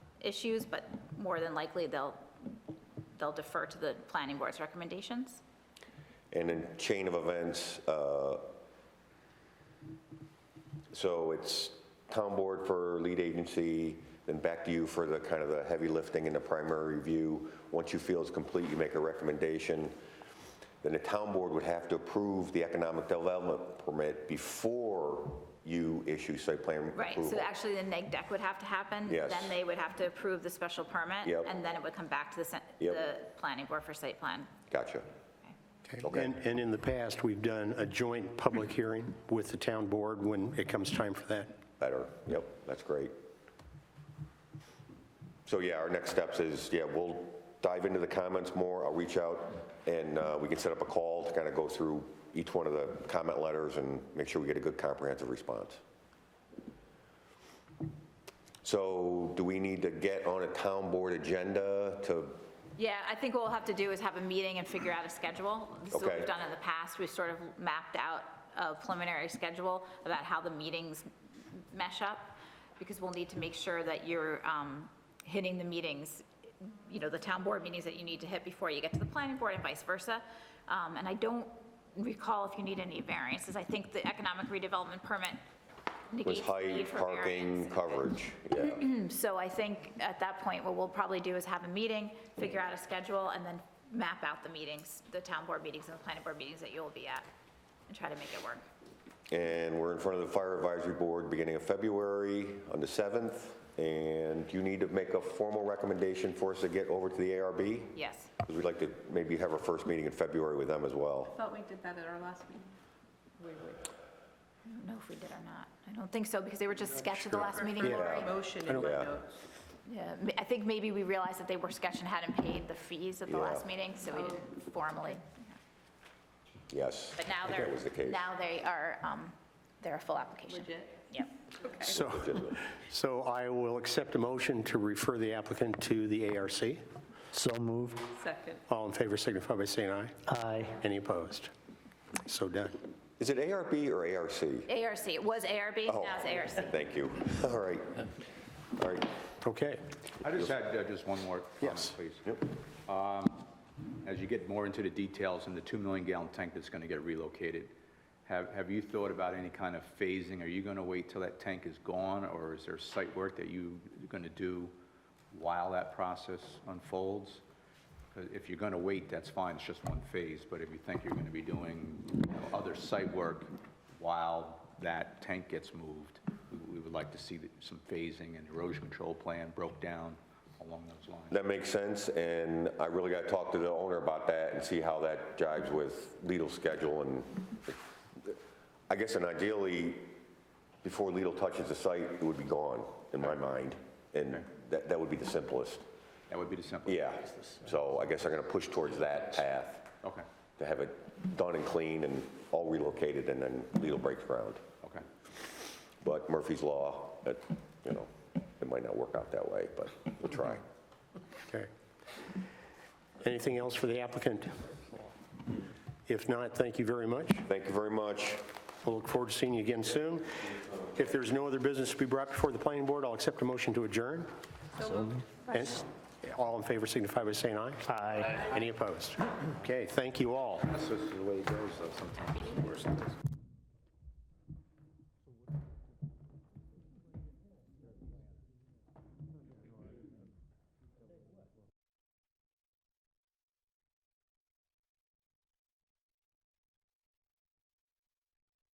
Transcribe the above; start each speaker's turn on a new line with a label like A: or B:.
A: issues, but more than likely, they'll, they'll defer to the planning board's recommendations.
B: And then chain of events, uh, so it's town board for lead agency, then back to you for the kind of the heavy lifting and the primary review. Once you feel it's complete, you make a recommendation. Then the town board would have to approve the economic development permit before you issue site plan
A: Right,
B: approval.
A: so actually, the neg deck would have to happen.
B: Yes.
A: Then they would have to approve the special permit.
B: Yep.
A: And then it would come back to the, sen-
B: Yep.
A: the planning board for site plan.
B: Gotcha. Okay.
C: And, and in the past, we've done a joint public hearing with the town board when it comes time for that.
B: Better, yep, that's great. So yeah, our next steps is, yeah, we'll dive into the comments more, I'll reach out, and uh, we can set up a call to kind of go through each one of the comment letters and make sure we get a good comprehensive response. So do we need to get on a town board agenda to,
A: Yeah, I think what we'll have to do is have a meeting and figure out a schedule. This is what
B: Okay.
A: we've done in the past. We've sort of mapped out a preliminary schedule about how the meetings mesh up, because we'll need to make sure that you're um, hitting the meetings, you know, the town board meetings that you need to hit before you get to the planning board and vice versa. Um, And I don't recall if you need any variances. I think the economic redevelopment permit
B: was
A: negates the
B: height,
A: need for
B: parking,
A: variance.
B: coverage? Yeah,
A: So I think at that point, what we'll probably do is have a meeting, figure out a schedule, and then map out the meetings, the town board meetings and the planning board meetings that you'll be at, and try to make it work.
B: and we're in front of the fire advisory board beginning of February on the 7th, and you need to make a formal recommendation for us to get over to the ARB?
A: Yes.
B: Because we'd like to maybe have our first meeting in February with them as well.
D: Thought we did that at our last meeting.
A: I don't know if we did or not. I don't think so, because they were just sketched at the last meeting, Lori.
D: Motion in my
B: Yeah.
D: notes.
A: Yeah, m- I think maybe we realized that they were sketched and hadn't paid the fees at the
B: Yeah.
A: last meeting, so we didn't formally.
B: Yes.
A: But now
B: I think
A: they're,
B: That was the case.
A: now they are, um, they're a full application.
D: Legit.
A: Yep.
C: So,
B: Legitimate.
C: so I will accept a motion to refer the applicant to the ARC.
E: So moved.
D: Second.
C: All in favor signify by saying aye.
E: Aye.
C: Any opposed? So done.
B: Is it ARB or ARC?
A: ARC, it was ARB,
B: Oh.
A: now it's ARC.
B: Thank you. All right. All right.
C: Okay.
F: I just had uh, just one more
C: Yes.
F: comment, please. As you get more into the details and the 2 million gallon tank that's going to get relocated, have, have you thought about any kind of phasing? Are you going to wait till that tank is gone, or is there site work that you're going to do while that process unfolds? 'Cause If you're going to wait, that's fine, it's just one phase, but if you think you're going to be doing you know, other site work while that tank gets moved, we- we would like to see the- some phasing and erosion control plan broke down along those lines.
B: That makes sense, and I really got to talk to the owner about that and see how that jives with Lidl's schedule, and I guess, and ideally, before Lidl touches the site, it would be gone, in my mind, and that, that would be the simplest.
F: That would be the simplest.
B: Yeah, so I guess I'm going to push towards that path.
F: Okay,
B: to have it done and clean and all relocated and then Lidl breaks ground.
F: okay.
B: But Murphy's Law, that, you know, it might not work out that way, but we'll try.
F: Mm-hmm.
C: Okay. Anything else for the applicant? If not, thank you very much.
B: Thank you very much.
C: We'll look forward to seeing you again soon. If there's no other business to be brought before the planning board, I'll accept a motion to adjourn. And all in favor signify by saying aye.
E: Aye.
C: Any opposed? Okay, thank you all.
F: That's just the way it goes, though, sometimes it's worse.